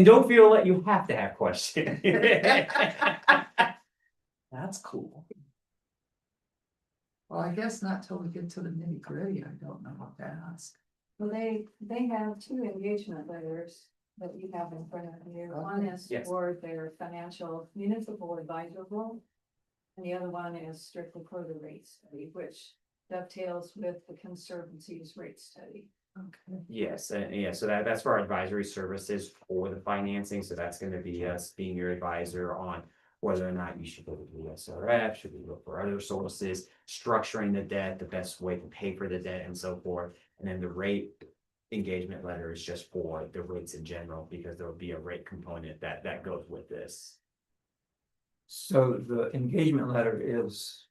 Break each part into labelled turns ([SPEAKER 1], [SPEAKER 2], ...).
[SPEAKER 1] And don't feel that you have to have questions. That's cool.
[SPEAKER 2] Well, I guess not till we get to the nitty gritty, I don't know what to ask.
[SPEAKER 3] Well, they, they have two engagement letters that you have in front of you. One is
[SPEAKER 1] Yes.
[SPEAKER 3] for their financial municipal advisor role. And the other one is strictly for the rate study, which dovetails with the conservancy's rate study.
[SPEAKER 2] Okay.
[SPEAKER 1] Yes, and yeah, so that, that's for our advisory services for the financing, so that's gonna be us being your advisor on. Whether or not you should go to the SRF, should we look for other sources, structuring the debt, the best way to pay for the debt and so forth. And then the rate engagement letter is just for the rates in general, because there will be a rate component that, that goes with this.
[SPEAKER 4] So the engagement letter is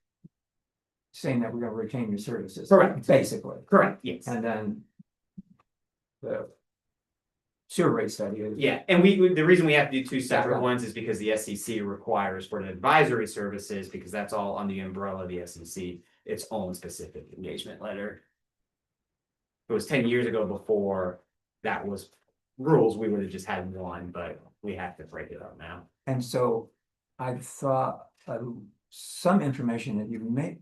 [SPEAKER 4] saying that we're gonna retain your services.
[SPEAKER 1] Correct.
[SPEAKER 4] Basically,
[SPEAKER 1] Correct. Yes.
[SPEAKER 4] and then the sewer rate study is.
[SPEAKER 1] Yeah, and we, we- the reason we have to do two separate
[SPEAKER 4] Separate.
[SPEAKER 1] ones is because the SEC requires for an advisory services, because that's all under the umbrella of the SEC, its own specific engagement letter. If It was ten years ago before that was rules, we would have just had one, but we have to break it up now.
[SPEAKER 4] And so I thought, uh, some information that you may,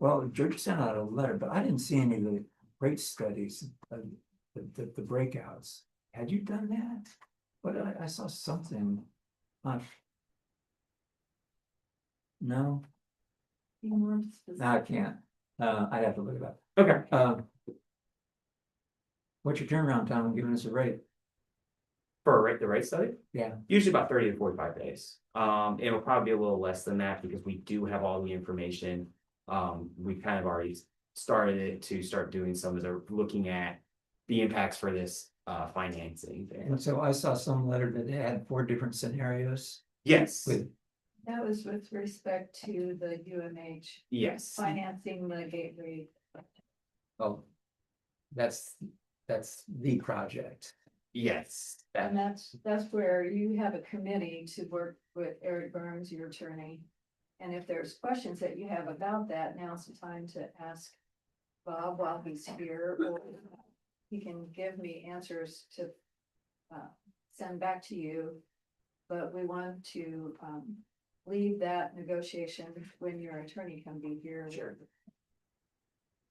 [SPEAKER 4] well, George sent out a letter, but I didn't see any of the rate studies, uh, the, the, the breakouts. Had you done that? But I, I saw something on. No,
[SPEAKER 3] You want
[SPEAKER 4] no, I can't. Uh, I'd have to look it up.
[SPEAKER 1] Okay.
[SPEAKER 4] Um. What's your turnaround time on giving us a rate?
[SPEAKER 1] For a rate, the rate study?
[SPEAKER 4] Yeah.
[SPEAKER 1] Usually about thirty to forty-five days. Um, it'll probably be a little less than that because we do have all the information. Um, we kind of already started it to start doing some of the, looking at the impacts for this uh financing.
[SPEAKER 4] And so I saw some letter that they had four different scenarios
[SPEAKER 1] Yes,
[SPEAKER 4] with,
[SPEAKER 3] That was with respect to the UMH
[SPEAKER 1] yes,
[SPEAKER 3] financing the gateway.
[SPEAKER 4] oh. That's, that's the project.
[SPEAKER 1] yes.
[SPEAKER 3] And
[SPEAKER 1] That-
[SPEAKER 3] that's, that's where you have a committee to work with Eric Burns, your attorney. And if there's questions that you have about that, now's the time to ask Bob while he's here, or he can give me answers to uh, send back to you. But we want to, um, leave that negotiation when your attorney can be here.
[SPEAKER 1] Sure.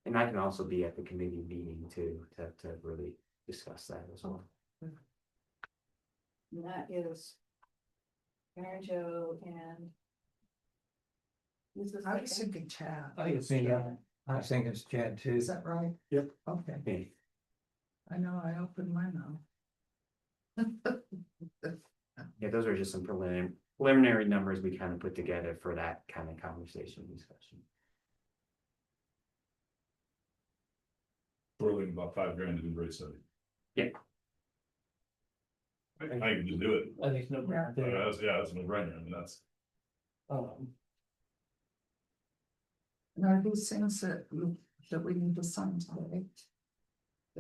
[SPEAKER 1] And I can also be at the committee meeting too, to to really discuss that as well.
[SPEAKER 3] And that is Mary Jo and this is
[SPEAKER 2] I
[SPEAKER 3] like-
[SPEAKER 2] was thinking Chad.
[SPEAKER 4] I think it's me, yeah. I was thinking it's Chad too.
[SPEAKER 2] Is that right?
[SPEAKER 1] Yep.
[SPEAKER 2] Okay,
[SPEAKER 1] Okay.
[SPEAKER 2] I know, I opened my mouth.
[SPEAKER 1] Yeah, those are just some preliminary, preliminary numbers we kind of put together for that kind of conversation discussion.
[SPEAKER 5] We're looking about five grand to do rate study.
[SPEAKER 1] Yeah.
[SPEAKER 5] I, I can just do it,
[SPEAKER 4] I think it's no.
[SPEAKER 2] Yeah.
[SPEAKER 5] But that's, yeah, that's no brainer, I mean, that's,
[SPEAKER 4] Um,
[SPEAKER 2] Now, these things that, we- that we need to sign today.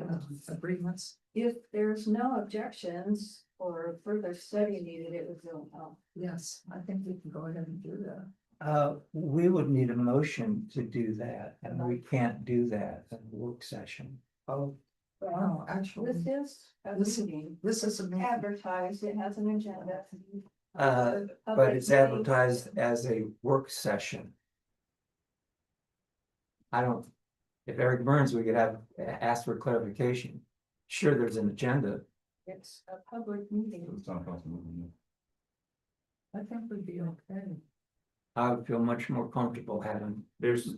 [SPEAKER 2] Uh, agreements,
[SPEAKER 3] If there's no objections or further study needed, it would go out.
[SPEAKER 2] yes, I think we can go ahead and do that.
[SPEAKER 4] Uh, we would need a motion to do that and we can't do that in work session.
[SPEAKER 2] Oh.
[SPEAKER 3] Well,
[SPEAKER 2] No,
[SPEAKER 4] Oh,
[SPEAKER 2] actually,
[SPEAKER 3] This is a
[SPEAKER 2] This-
[SPEAKER 3] meeting
[SPEAKER 2] this is a meeting,
[SPEAKER 3] advertised, it has an agenda.
[SPEAKER 4] Mm-hmm. Uh, but it's advertised as a work session. I don't, if Eric Burns, we could have, asked for clarification. Sure, there's an agenda,
[SPEAKER 3] It's a public meeting.
[SPEAKER 5] it's not possible.
[SPEAKER 2] I think we'd be okay.
[SPEAKER 4] I would feel much more comfortable having,
[SPEAKER 1] There's,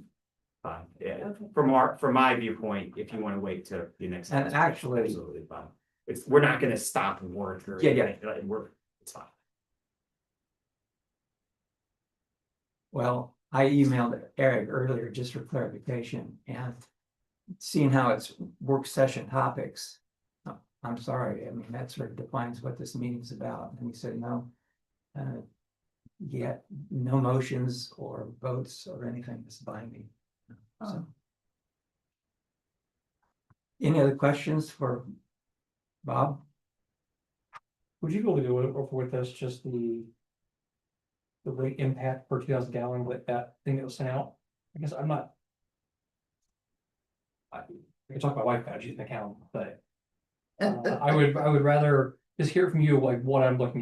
[SPEAKER 1] fine, yeah,
[SPEAKER 3] Okay.
[SPEAKER 1] from our, from my viewpoint, if you want to wait till the next.
[SPEAKER 4] And
[SPEAKER 1] conversation,
[SPEAKER 4] actually-
[SPEAKER 1] Absolutely fine. It's, we're not gonna stop work or.
[SPEAKER 4] Yeah, yeah.
[SPEAKER 1] anything, like, We're, it's fine.
[SPEAKER 4] well, I emailed Eric earlier just for clarification and. Seeing how it's work session topics. uh, I'm sorry, I mean, that sort of defines what this meeting's about, and he said, no. uh, Yeah, no motions or votes or anything that's binding. So. Any other questions for Bob?
[SPEAKER 6] Would you be able to go over with us just the. The rate impact per two thousand gallon with that thing that was sent out? I guess I'm not. I I can talk about life badges in the account, but uh, I would, I would rather, just just hear from you like what I'm looking at.